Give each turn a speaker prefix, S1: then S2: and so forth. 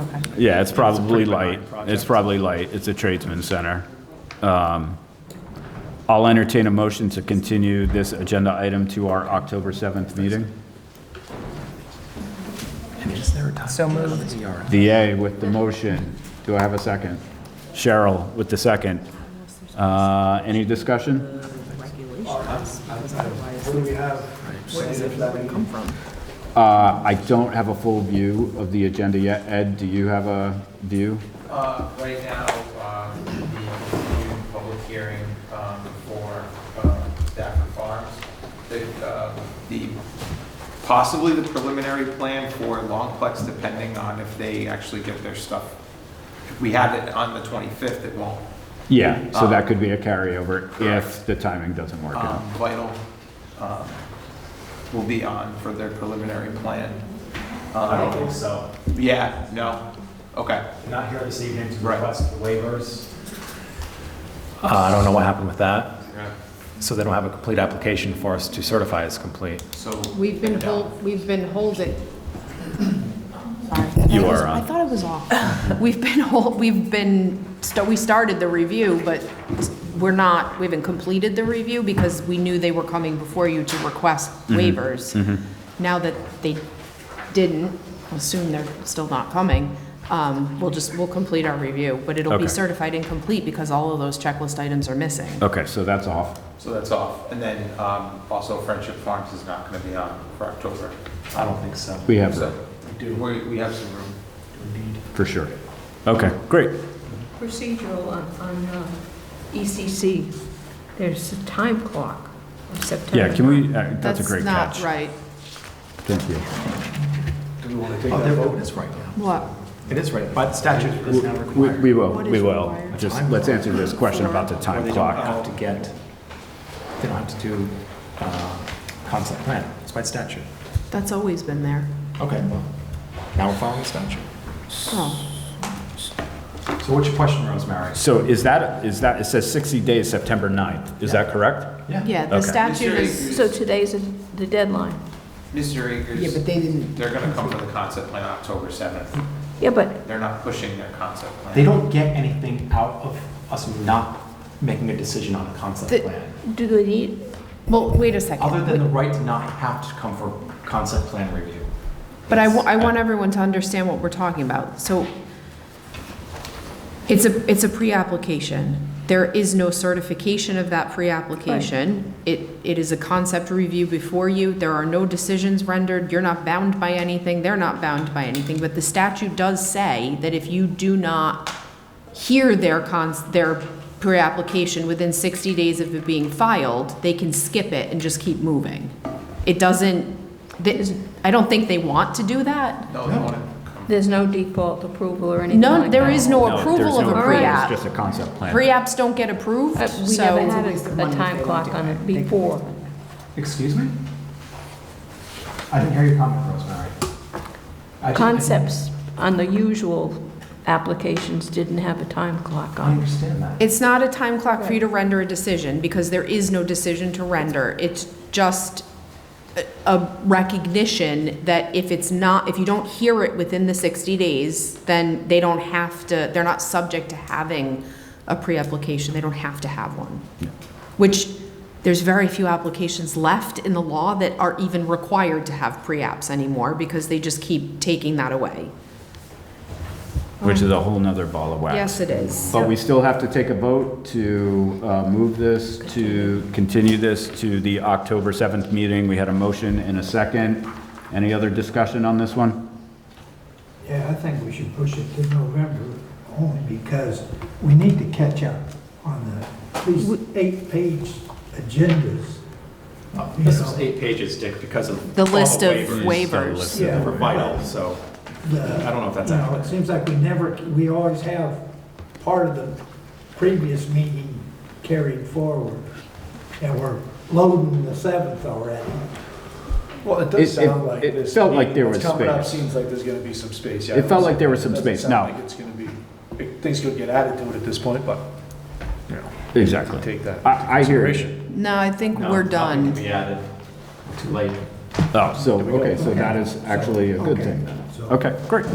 S1: Okay.
S2: Yeah, it's probably
S3: pretty
S2: light.
S3: benign project.
S2: It's probably light. It's a tradesman center. Um, I'll entertain a motion to continue this agenda item to our October 7th meeting.
S3: And is there a time? E
S1: So moved.
S2: DA with the motion. Do I have a second? Cheryl with the second. Uh, Any discussion?
S4: What do we have? slated for that meeting?
S2: Uh, I don't have a full view of the agenda yet. Ed, do you have a view?
S5: Uh, Right now, uh, the continued public hearing um, for uh, Stafford Farms, The, uh, the, possibly the preliminary plan for Longplex, depending on if they actually get their stuff. If we have it on the 25th, it won't.
S2: Yeah, so that could be a carryover if the timing doesn't work out.
S5: Um, Vital um, will be on for their preliminary plan.
S3: I don't
S5: Um,
S3: think so.
S5: Yeah, no, okay.
S3: I'm not here this evening to
S5: Right.
S3: request waivers. Uh, I don't know what happened with that,
S5: Yeah,
S3: so they don't have a complete application for us to certify as complete.
S5: So.
S6: We've been hold, we've been holding.
S2: You are
S6: I
S2: on.
S6: thought it was off. We've been hold, we've been, st- we started the review, but we're not, we haven't completed the review because we knew they were coming before you to request
S2: Mm-hmm.
S6: waivers. Now that they didn't, I assume they're still not coming, um, we'll just, we'll complete our review, but it'll
S2: Okay.
S6: be certified incomplete because all of those checklist items are missing.
S2: Okay, so that's off.
S5: So that's off. And then um, also Friendship Farms is not going to be on for October.
S3: I don't think so.
S2: We have
S5: So
S2: that,
S5: we we have some room.
S2: for sure. Okay, great.
S7: procedural on, on uh, ECC, there's a time clock of September.
S2: Yeah, can we, uh, that's a great
S6: That's
S2: catch.
S6: not right.
S2: Thank you.
S3: Oh, their vote is right now.
S6: What?
S3: It is right, by the statute, it is now
S2: We
S3: required.
S2: we will,
S6: What
S2: we
S6: is
S2: will.
S6: required?
S2: Just, let's answer this question about the
S3: Or
S2: time
S3: they don't
S2: clock.
S3: have to get, they don't have to do uh, concept plan, it's by statute.
S6: That's always been there.
S3: Okay, well, now we're following the statute.
S6: Oh.
S3: So what's your question, Rosemary?
S2: So is that, is that, it says 60 days, September 9th. Is that correct?
S6: Yeah, the
S2: Okay.
S6: statute is,
S5: Mr.
S7: So
S5: Akers-
S7: today's the deadline.
S5: Mr.
S1: Yeah, but
S5: Akers,
S1: they didn't,
S5: they're going to come for the concept plan October 7th.
S7: Yeah, but
S5: They're not pushing their concept plan.
S3: They don't get anything out of us not making a decision on a
S6: The-
S3: concept plan,
S7: do they need,
S6: well, wait a second.
S3: other than the right to not have to come for concept plan review.
S6: But I, wa- I want everyone to understand what we're talking about. So it's a, it's a pre-application. There is no certification of that pre-application. It, it is a concept review before you. There are no decisions rendered. You're not bound by anything. They're not bound by anything. But the statute does say that if you do not hear their cons, their pre-application within 60 days of it being filed, they can skip it and just keep moving. It doesn't, th- I don't think they want to do that.
S5: No, they want to come.
S7: there's no default approval or anything
S6: No,
S7: like
S6: there
S7: that?
S6: is no Oh,
S2: there's
S6: approval of
S2: no
S6: a
S2: approval,
S6: pre-app.
S2: It's just a concept plan.
S6: Pre-apps don't get approved,
S7: Uh, We
S6: so.
S7: never had
S1: It's always
S7: a
S1: the one
S7: a
S1: that they
S7: time
S1: don't
S7: clock
S1: do
S7: on
S1: it.
S7: it
S1: They-
S7: before.
S3: Excuse me? I didn't hear your comment, Rosemary. I didn't-
S7: Concepts on the usual applications didn't have a time clock
S3: I
S7: on.
S3: understand that.
S6: It's not a time clock for you to render a decision, because there is no decision to render. It's just a- a recognition that if it's not, if you don't hear it within the 60 days, then they don't have to, they're not subject to having a pre-application, they don't have to have one. Which, there's very few applications left in the law that are even required to have pre-apps anymore, because they just keep taking that away.
S2: Which is a whole nother ball of wax.
S6: Yes, it is.
S2: But we still have to take a vote to uh, move this, to continue this to the October 7th meeting. We had a motion and a second. Any other discussion on this one?
S4: Yeah, I think we should push it to November only because we need to catch up on the, these eight-page agendas.
S3: Uh, This is eight pages, Dick, because of.
S6: The
S3: all
S6: list of
S3: the
S6: waivers.
S3: list that were vital, so uh, I
S4: I
S3: don't know if that's
S4: You know,
S3: accurate.
S4: it seems like we never, we always have part of the previous meeting carried forward. And we're loading the seventh already.
S8: Well, it
S2: It-
S8: does sound
S2: it-
S8: like
S2: it
S8: this.
S2: felt like
S8: meeting
S2: there
S8: that's
S2: was
S8: Coming up
S2: space.
S8: seems like there's gonna be some space. yeah.
S2: It felt like there was some
S8: Doesn't
S2: space.
S8: sound
S2: Now-
S8: like it's gonna be, things could get added to it at this point, but, you know,
S2: Exactly.
S8: take that into
S2: I, I hear
S8: consideration.
S2: it.
S6: No, I think
S3: No,
S6: we're
S3: nothing
S6: done.
S3: can be added. Too late.
S2: Oh, so, okay, so that is actually a good thing then. Okay, great.